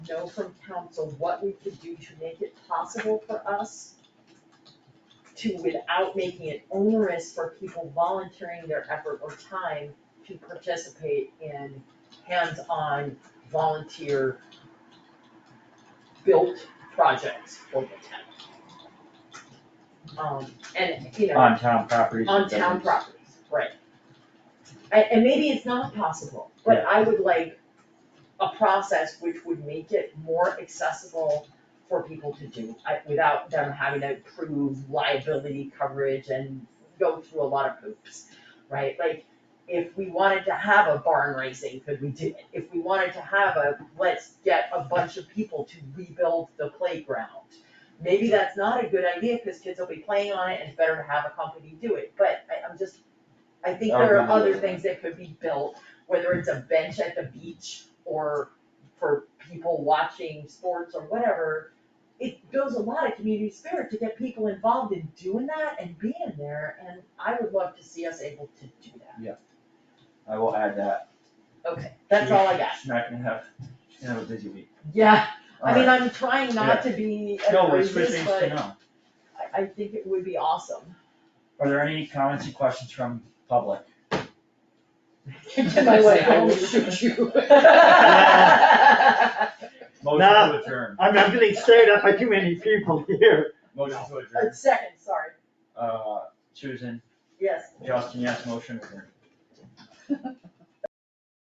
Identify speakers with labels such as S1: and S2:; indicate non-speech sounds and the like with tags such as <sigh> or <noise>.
S1: know from council what we could do to make it possible for us to, without making it onerous for people volunteering their effort or time to participate in hands-on volunteer built projects for the town. Um, and, you know.
S2: on town properties.
S1: On town properties, right. And, and maybe it's not possible, but
S2: Yeah.
S1: I would like a process which would make it more accessible for people to do, I, without them having to prove liability coverage and go through a lot of hoops, right? Like, if we wanted to have a barn raising, could we do it? If we wanted to have a, let's get a bunch of people to rebuild the playground, maybe that's not a good idea, cause kids will be playing on it, and it's better to have a company do it, but I, I'm just, I think there are other things that could be built, whether it's a bench at the beach, or for people watching sports or whatever, it builds a lot of community spirit to get people involved in doing that and being there, and I would love to see us able to do that.
S2: I will add that.
S1: Okay, that's all I
S2: <laughs>
S1: got,
S2: She's not gonna have, she's gonna have a busy week.
S1: yeah, I mean,
S2: Alright.
S1: I'm trying not to be
S2: No, we're
S1: outrageous,
S2: switching to
S1: but
S2: no.
S1: I, I think it would be awesome.
S2: <laughs> Are there any comments and questions from public?
S1: Get my way, I will shoot
S2: <laughs>
S1: you. <laughs> Let's
S2: Motion
S3: Nah.
S2: to adjourn,
S3: I'm, I'm getting stared at by too many people here.
S2: motion to adjourn.
S1: Second, sorry,
S2: Uh, Susan,
S1: yes.
S2: Justin, yes, motion adjourned.